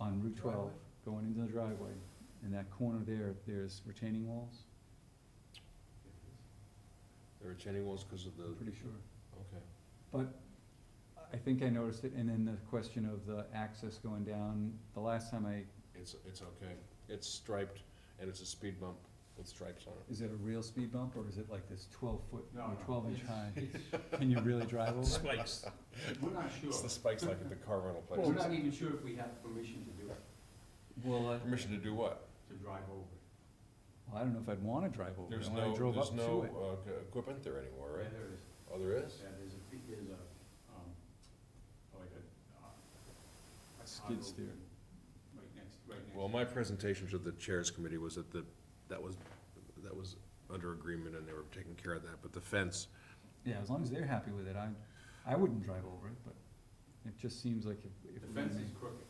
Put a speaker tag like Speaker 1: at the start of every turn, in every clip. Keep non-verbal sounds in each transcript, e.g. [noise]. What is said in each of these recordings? Speaker 1: on Route twelve,
Speaker 2: Driveway.
Speaker 1: going into the driveway, in that corner there, there's retaining walls,
Speaker 3: There are retaining walls because of the,
Speaker 1: I'm pretty sure.
Speaker 3: okay.
Speaker 1: But I think I noticed it, and then the question of the access going down, the last time I,
Speaker 3: It's, it's okay. It's striped and it's a speed bump with stripes on it.
Speaker 1: is it a real speed bump, or is it like this twelve foot,
Speaker 2: No,
Speaker 1: or
Speaker 2: no,
Speaker 1: twelve inch
Speaker 2: it's-
Speaker 1: high? Can you really drive over? it?
Speaker 4: Spikes.
Speaker 2: We're not
Speaker 3: [laughs]
Speaker 2: sure.
Speaker 3: It's the spikes like at the car rental
Speaker 2: Well, We're
Speaker 3: places.
Speaker 2: not even sure if we have permission to do it,
Speaker 1: Well, I,
Speaker 3: Permission to do what?
Speaker 2: to drive over.
Speaker 1: well, I don't know if I'd wanna drive over
Speaker 3: There's
Speaker 1: it, when I
Speaker 3: no,
Speaker 1: drove
Speaker 3: there's
Speaker 1: up
Speaker 3: no
Speaker 1: to it.
Speaker 3: uh, g- equipment there anymore,
Speaker 2: Yeah,
Speaker 3: right?
Speaker 2: there is,
Speaker 3: Oh, there is?
Speaker 2: yeah, there's a, pe- there's a, um, like a, uh, a
Speaker 1: Skid
Speaker 2: condo
Speaker 1: steer.
Speaker 2: Right next, right next.
Speaker 3: Well, my presentation to the chairs committee was that the, that was, that was under agreement and they were taking care of that, but the fence,
Speaker 1: Yeah, as long as they're happy with it, I, I wouldn't drive over it, but it just seems like if, if.
Speaker 2: The
Speaker 1: we're
Speaker 2: fence
Speaker 1: gonna-
Speaker 2: is crooked.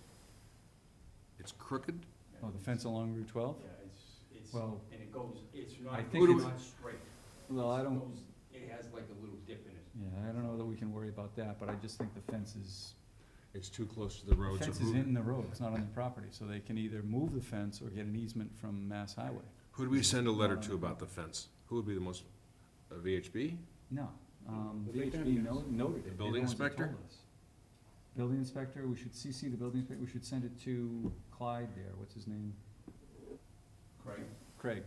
Speaker 3: it's crooked?
Speaker 2: yeah,
Speaker 1: Oh, the
Speaker 2: it's-
Speaker 1: fence along Route twelve?
Speaker 2: Yeah, it's, it's,
Speaker 1: Well,
Speaker 2: and it goes, it's
Speaker 1: I
Speaker 2: not,
Speaker 1: think
Speaker 2: it's
Speaker 1: it's-
Speaker 2: not straight.
Speaker 1: well, I
Speaker 2: It
Speaker 1: don't,
Speaker 2: goes- It has like a little dip in it.
Speaker 1: yeah, I don't know that we can worry about that, but I just think the fence is,
Speaker 3: It's too close to the
Speaker 1: the
Speaker 3: road. so
Speaker 1: fence is
Speaker 3: who-
Speaker 1: in the road, it's not on the property, so they can either move the fence or get an easement from Mass Highway.
Speaker 3: Who'd we send a letter to about the fence? Who would be the most, uh, VHB?
Speaker 1: No, um,
Speaker 2: But they
Speaker 1: VHB
Speaker 2: can-
Speaker 1: no- noted it.
Speaker 3: The
Speaker 1: They're
Speaker 3: building
Speaker 1: ones that
Speaker 3: inspector?
Speaker 1: told us. Building inspector, we should CC the building inspector, we should send it to Clyde there, what's his name?
Speaker 2: Craig,
Speaker 1: Craig,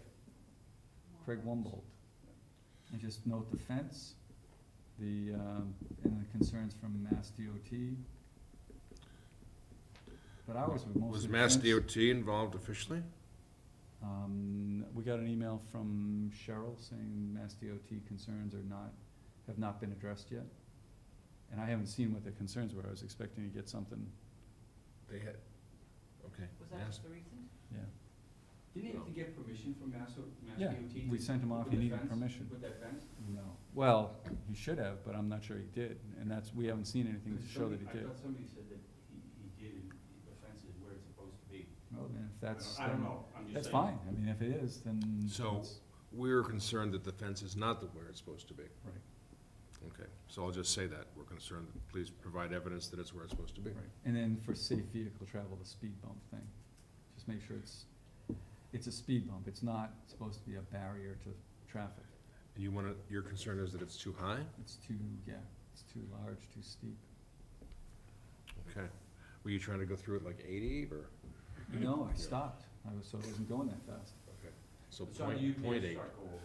Speaker 1: Craig Wumbold. And just note the fence, the, um, and the concerns from Mass DOT. But ours were mostly.
Speaker 3: Was Mass
Speaker 1: fence.
Speaker 3: DOT involved officially?
Speaker 1: Um, we got an email from Cheryl saying Mass DOT concerns are not, have not been addressed yet. And I haven't seen what the concerns were, I was expecting to get something,
Speaker 3: They had, okay.
Speaker 4: Was that the reason?
Speaker 1: yeah.
Speaker 2: didn't he have to get permission from Mass, O- Mass
Speaker 1: Yeah,
Speaker 2: DOT?
Speaker 1: we
Speaker 2: to
Speaker 1: sent him
Speaker 2: put
Speaker 1: off,
Speaker 2: the
Speaker 1: he needed
Speaker 2: fence-
Speaker 1: permission.
Speaker 2: Put that fence?
Speaker 1: No. Well, he should have, but I'm not sure he did, and that's, we haven't seen anything to
Speaker 2: Because
Speaker 1: show that
Speaker 2: somebody-
Speaker 1: he did.
Speaker 2: I thought somebody said that he, he did, and the fence is where it's supposed to be.
Speaker 1: Well, then if that's.
Speaker 2: I
Speaker 1: then-
Speaker 2: don't know, I'm just saying.
Speaker 1: That's fine, I mean, if it is, then.
Speaker 3: So-
Speaker 1: it's-
Speaker 3: We're concerned that the fence is not the where it's supposed to be.
Speaker 1: Right.
Speaker 3: Okay, so I'll just say that. We're concerned, please provide evidence that it's where it's supposed to be.
Speaker 1: Right, and then for safe vehicle travel, the speed bump thing, just make sure it's, it's a speed bump, it's not supposed to be a barrier to traffic.
Speaker 3: And you wanna, your concern is that it's too high?
Speaker 1: It's too, yeah, it's too large, too steep.
Speaker 3: Okay. Were you trying to go through it like eighty or?
Speaker 1: No, I stopped, I was, so I wasn't going that fast.
Speaker 3: Okay. So
Speaker 2: It's on you,
Speaker 3: point, point
Speaker 2: you
Speaker 3: eight.
Speaker 2: start over.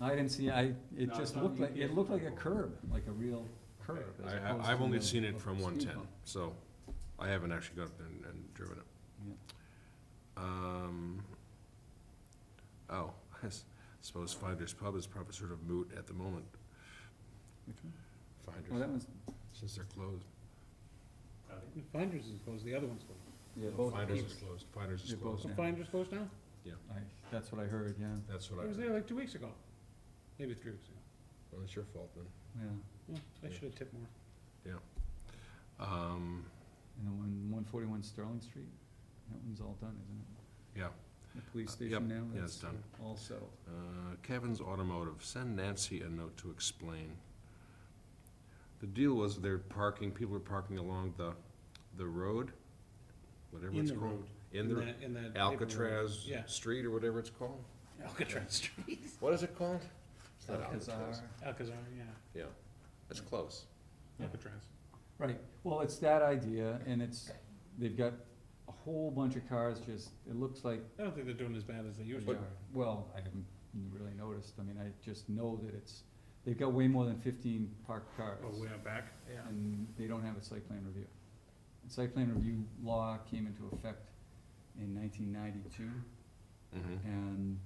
Speaker 1: I didn't see, I, it
Speaker 2: No, it's
Speaker 1: just
Speaker 2: not-
Speaker 1: looked
Speaker 2: you
Speaker 1: like, it
Speaker 2: can't
Speaker 1: looked like a
Speaker 2: drive
Speaker 1: curb, like a real curb. as
Speaker 3: I,
Speaker 1: opposed
Speaker 3: I- I've
Speaker 1: to
Speaker 3: only
Speaker 1: a-
Speaker 3: seen it
Speaker 1: a
Speaker 3: from
Speaker 1: speed
Speaker 3: one ten,
Speaker 1: bump.
Speaker 3: so I haven't actually gone up and, and driven it.
Speaker 1: Yeah.
Speaker 3: Um, oh, [laughs] I s- suppose Finders Pub is probably sort of moot at the moment,
Speaker 1: Which one? Oh, that
Speaker 3: Finders,
Speaker 1: one's,
Speaker 3: since they're closed.
Speaker 2: Got it?
Speaker 4: The Finders is closed, the other one's closed.
Speaker 1: yeah,
Speaker 3: No,
Speaker 1: both.
Speaker 3: Finders
Speaker 1: keep-
Speaker 3: is closed, Finders is
Speaker 1: They're both
Speaker 3: closed,
Speaker 1: now.
Speaker 4: Finders closed now?
Speaker 1: I, that's what I heard, yeah,
Speaker 3: that's what I,
Speaker 4: It was
Speaker 3: heard.
Speaker 4: there like two weeks ago, maybe three weeks ago.
Speaker 3: well, it's your fault then.
Speaker 1: yeah,
Speaker 4: Yeah, I
Speaker 3: Yeah.
Speaker 4: should have tipped more.
Speaker 3: Um,
Speaker 1: and the one, one forty-one Sterling Street, that one's all done, isn't it?
Speaker 3: yeah,
Speaker 1: The police
Speaker 3: Uh, yep,
Speaker 1: station now?
Speaker 3: yeah, it's done.
Speaker 1: All settled.
Speaker 3: Uh, Kevin's Automotive, send Nancy a note to explain. The deal was they're parking, people are parking along the, the road, whatever
Speaker 4: In
Speaker 3: it's
Speaker 4: the
Speaker 3: called.
Speaker 4: road. that- In that. paper road.
Speaker 3: Alcatraz
Speaker 4: Yeah,
Speaker 3: Street or whatever it's called.
Speaker 4: Alcatraz Street,
Speaker 3: What is it called? It's not
Speaker 1: Alcazar.
Speaker 3: Alcatraz.
Speaker 4: Alcazar, yeah,
Speaker 3: Yeah, it's close.
Speaker 1: Yeah.
Speaker 4: Alcatraz.
Speaker 1: Right, well, it's that idea, and it's, they've got a whole bunch of cars just, it looks like,
Speaker 4: I don't think they're doing as bad as they used to.
Speaker 1: But- well, I haven't really noticed, I mean, I just know that it's, they've got way more than fifteen parked cars.
Speaker 4: Oh, way out back? Yeah.
Speaker 1: And they don't have a site plan review. And Site plan review law came into effect in nineteen ninety-two,
Speaker 3: Mm-hmm.
Speaker 1: and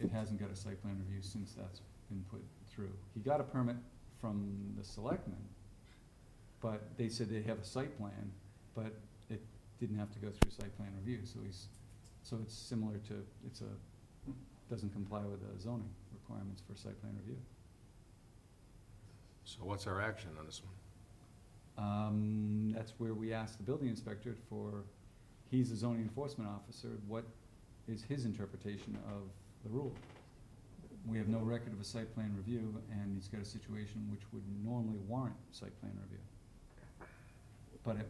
Speaker 1: it hasn't got a site plan review since that's been put through. He got a permit from the selectmen, but they said they have a site plan, but it didn't have to go through site plan review, so he's, so it's similar to, it's a, doesn't comply with the zoning requirements for site plan review.
Speaker 3: So what's our action on this one?
Speaker 1: Um, that's where we asked the building inspector for, he's the zoning enforcement officer, what is his interpretation of the rule? We have no record of a site plan review, and he's got a situation which would normally warrant site plan review. But it